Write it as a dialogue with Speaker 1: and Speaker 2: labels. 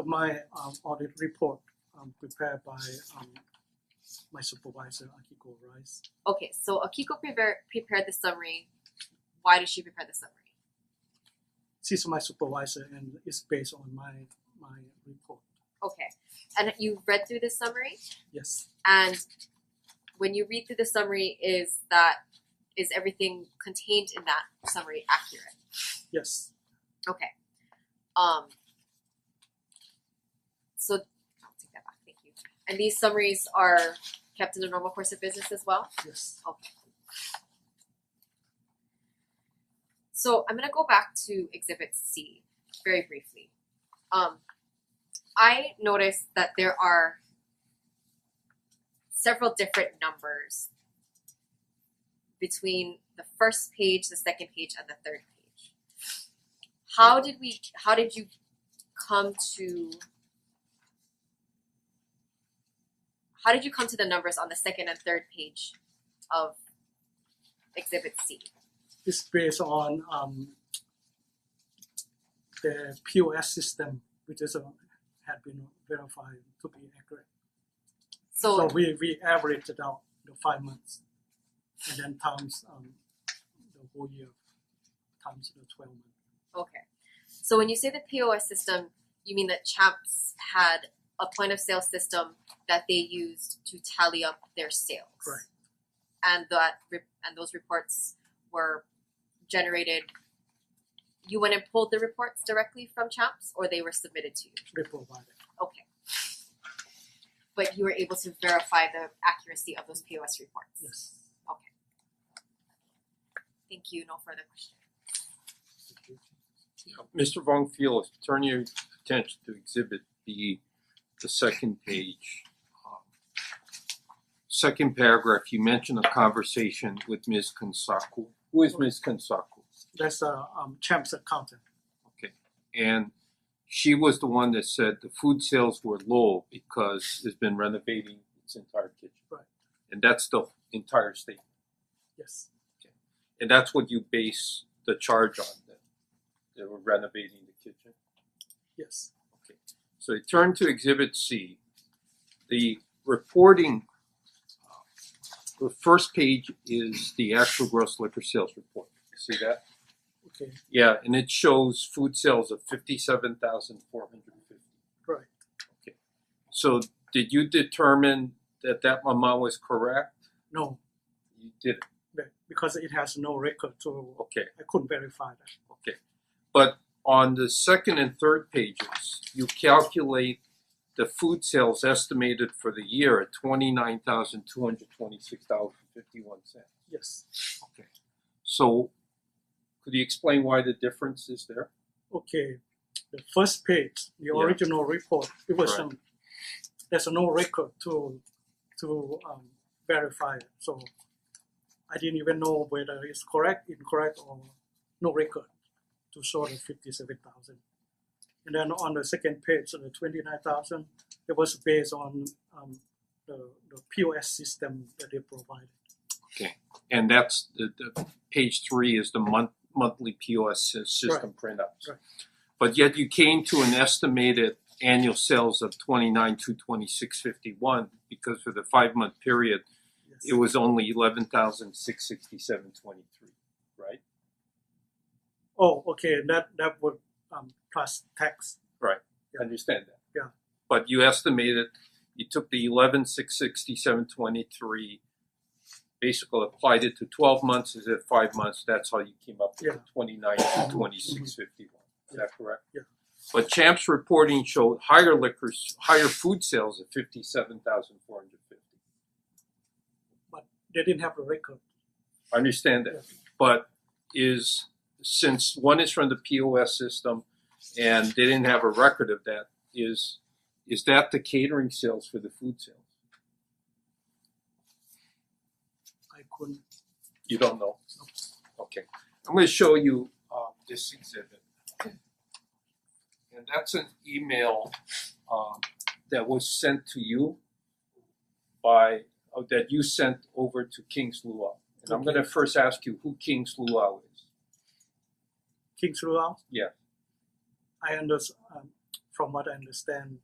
Speaker 1: of my um audit report um prepared by um my supervisor Akiko Rice.
Speaker 2: Okay, so Akiko prepared prepared the summary. Why did she prepare the summary?
Speaker 1: She's my supervisor and it's based on my my report.
Speaker 2: Okay, and you read through the summary,
Speaker 1: Yes,
Speaker 2: and when you read through the summary, is that is everything contained in that summary accurate?
Speaker 1: yes,
Speaker 2: Okay. Um. So, I'll take that back. Thank you. And these summaries are kept in the normal course of business as well.
Speaker 1: yes.
Speaker 2: So I'm gonna go back to Exhibit C very briefly. Um, I noticed that there are several different numbers between the first page, the second page, and the third page. How did we? How did you come to? How did you come to the numbers on the second and third page of Exhibit C?
Speaker 1: It's based on um the POS system which is uh, had been verified to be accurate. So we we averaged it out the five months and then times um the whole year times the twelve months.
Speaker 2: Okay. So when you say the POS system, you mean that Champs had a point of sale system that they used to tally up their sales.
Speaker 1: Correct.
Speaker 2: And that re- and those reports were generated you went and pulled the reports directly from Champs or they were submitted to you.
Speaker 1: They provided.
Speaker 2: Okay. But you were able to verify the accuracy of those POS reports.
Speaker 1: Yes.
Speaker 2: Thank you. No further questions.
Speaker 3: Mr. Von Fiel, turn your attention to exhibit B, the second page. um, Second paragraph, you mention a conversation with Ms. Kansaku. Who is Ms. Kansaku?
Speaker 1: That's a um Champ's accountant.
Speaker 3: Okay, and she was the one that said the food sales were low because it's been renovating its entire kitchen.
Speaker 1: Right.
Speaker 3: And that's the entire statement,
Speaker 1: Yes.
Speaker 3: and that's what you base the charge on, that they were renovating the kitchen?
Speaker 1: Yes.
Speaker 3: Okay, so we turn to exhibit C. The reporting, uh, the first page is the actual gross liquor sales report. You See that?
Speaker 1: Okay.
Speaker 3: Yeah, and it shows food sales of fifty-seven thousand four hundred fifty.
Speaker 1: Right.
Speaker 3: Okay, so did you determine that that amount was correct?
Speaker 1: No,
Speaker 3: You did, it.
Speaker 1: be- because it has no record to
Speaker 3: okay.
Speaker 1: I couldn't verify that.
Speaker 3: Okay, but on the second and third pages, you calculate the food sales estimated for the year at twenty-nine thousand two hundred twenty-six dollars fifty-one cent.
Speaker 1: Yes.
Speaker 3: Okay. So, could you explain why the difference is there?
Speaker 1: Okay. The first page, the
Speaker 3: Yeah.
Speaker 1: original report, it was
Speaker 3: Correct.
Speaker 1: um there's no record to to um verify it. So I didn't even know whether it's correct, incorrect or no record to show the fifty seven thousand. And then on the second page, the twenty nine thousand, it was based on um the the POS system that they provided.
Speaker 3: And that's the, the page three is the month, monthly POS sy- system printouts.
Speaker 1: Right.
Speaker 3: But yet you came to an estimated annual sales of twenty-nine two twenty-six fifty-one because for the five-month period,
Speaker 1: Yes.
Speaker 3: it was only eleven thousand six sixty seven twenty three, right?
Speaker 1: Oh, okay, that that would um plus tax, Yeah.
Speaker 3: I Understand that?
Speaker 1: Yeah.
Speaker 3: But you estimated, you took the eleven six sixty seven twenty three, basically applied it to twelve months, is it five months, that's how you came up with
Speaker 1: Yeah.
Speaker 3: the twenty nine to twenty six fifty one, is that correct?
Speaker 1: Yeah.
Speaker 3: But Champ's reporting showed higher liquors, higher food sales of fifty seven thousand four hundred fifty.
Speaker 1: they didn't have a record.
Speaker 3: I understand that, but is, since one is from the POS system and they didn't have a record of that, is, is that the catering sales for the food sales?
Speaker 1: I couldn't,
Speaker 3: You don't know? Okay, I'm gonna show you um this exhibit. And that's an email um that was sent to you by, oh, that you sent over to King's Luau. And I'm gonna first ask you who King's Luau is.
Speaker 1: King's Luau?
Speaker 3: Yeah.
Speaker 1: I understand, um, from what I understand,